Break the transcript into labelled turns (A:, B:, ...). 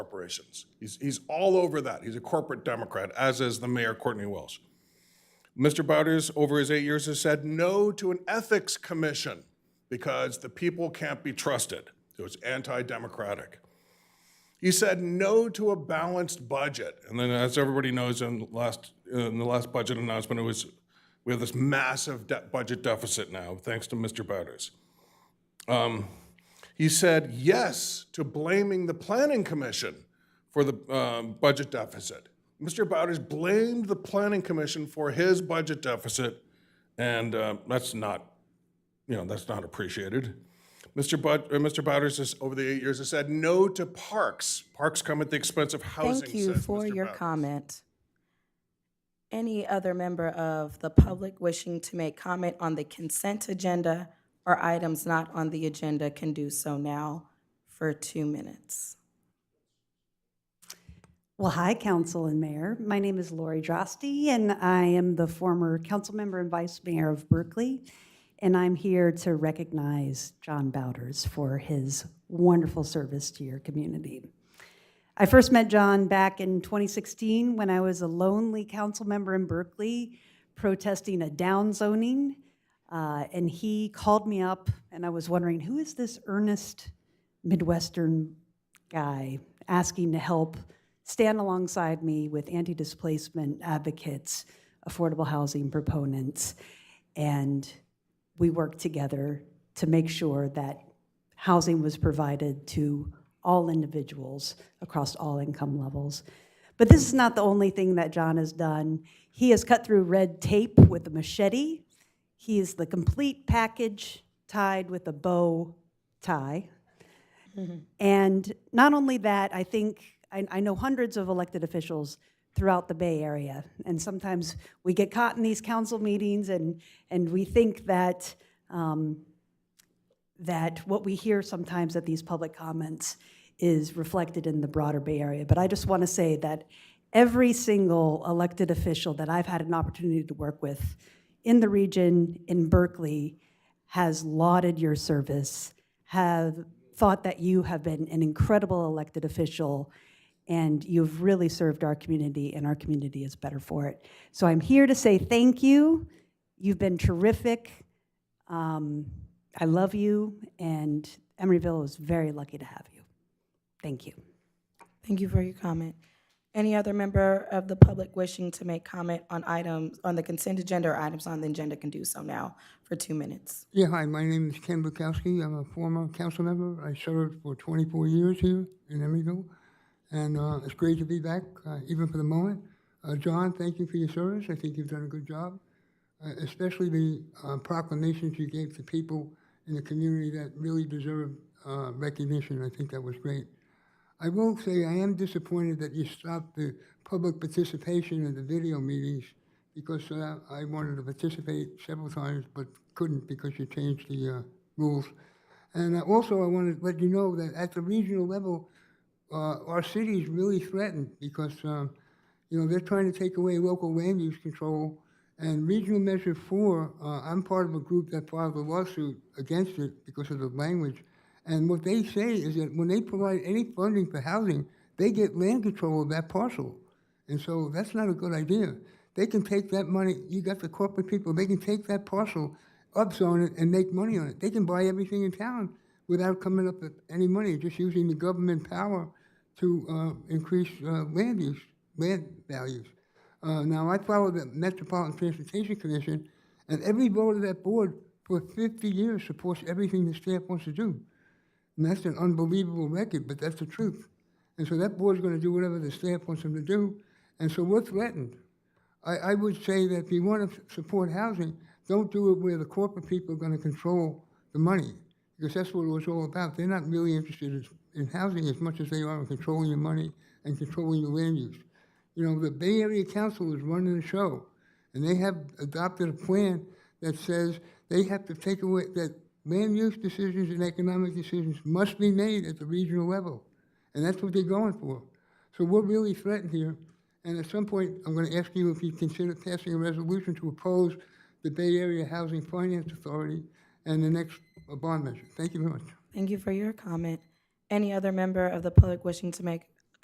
A: corporations. He's, he's all over that. He's a corporate Democrat, as is the mayor, Courtney Welsh. Mr. Bowders, over his eight years, has said no to an ethics commission because the people can't be trusted. It was anti-democratic. He said no to a balanced budget. And then, as everybody knows, in the last, in the last budget announcement, it was, we have this massive de- budget deficit now, thanks to Mr. Bowders. Um, He said yes to blaming the Planning Commission for the um, budget deficit. Mr. Bowders blamed the Planning Commission for his budget deficit, and uh, that's not, you know, that's not appreciated. Mr. Bud, uh, Mr. Bowders has, over the eight years, has said no to parks. Parks come at the expense of housing,
B: Thank you
A: says
B: for
A: Mr.
B: your
A: Bowders.
B: comment. Any other member of the public wishing to make comment on the consent agenda or items not on the agenda can do so now for two minutes.
C: Well, hi, council and mayor. My name is Lori Drosty, and I am the former council member and vice mayor of Berkeley. And I'm here to recognize John Bowders for his wonderful service to your community. I first met John back in 2016 when I was a lonely council member in Berkeley protesting a downzoning. Uh, and he called me up, and I was wondering, who is this earnest Midwestern guy asking to help stand alongside me with anti displacement advocates, affordable housing proponents? And we worked together to make sure that housing was provided to all individuals across all income levels. But this is not the only thing that John has done. He has cut through red tape with a machete. He is the complete package tied with a bow tie. And not only that, I think, I, I know hundreds of elected officials throughout the Bay Area. And sometimes we get caught in these council meetings and, and we think that, um, that what we hear sometimes at these public comments is reflected in the broader Bay Area. But I just want to say that every single elected official that I've had an opportunity to work with in the region, in Berkeley, has lauded your service, have thought that you have been an incredible elected official, and you've really served our community, and our community is better for it. So I'm here to say thank you. You've been terrific. Um, I love you, and Emeryville is very lucky to have you. Thank you.
B: Thank you for your comment. Any other member of the public wishing to make comment on items, on the consent agenda or items on the agenda can do so now for two minutes.
D: Yeah, hi, my name is Ken Bukowski. I'm a former council member. I served for 24 years here in Emeryville, and uh, it's great to be back, uh, even for the moment. Uh, John, thank you for your service. I think you've done a good job, uh, especially the uh, proclamations you gave to people in the community that really deserve uh, recognition. I think that was great. I will say I am disappointed that you stopped the public participation in the video meetings because uh, I wanted to participate several times but couldn't because you changed the uh, rules. And uh, also, I wanted to let you know that at the regional level, uh, our city is really threatened because um, you know they're trying to take away local land use control. And regional measure four, uh, I'm part of a group that filed a lawsuit against it because of the language. And what they say is that when they provide any funding for housing, they get land control of that parcel. And so that's not a good idea. They can take that money, you got the corporate people, they can take that parcel, upzone it, and make money on it. They can buy everything in town without coming up with any money, just using the government power to uh, increase uh, land use, land values. Uh, now, I follow the Metropolitan Transportation Commission, and every vote of that board for 50 years supports everything the staff wants to do. And that's an unbelievable record, but that's the truth. And so that board's going to do whatever the staff wants them to do. And so we're threatened. I, I would say that if you want to support housing, don't do it where the corporate people are going to control the money, because that's what it was all about. They're not really interested in- in housing as much as they are in controlling your money and controlling your land use. You know, the Bay Area Council is running the show, and they have adopted a plan that says they have to take away, that land use decisions and economic decisions must be made at the regional level. And that's what they're going for. So we're really threatened here. And at some point, I'm going to ask you if you consider passing a resolution to oppose the Bay Area Housing Finance Authority and the next uh, bond measure. Thank you very much.
B: Thank you for your comment. Any other member of the public wishing to make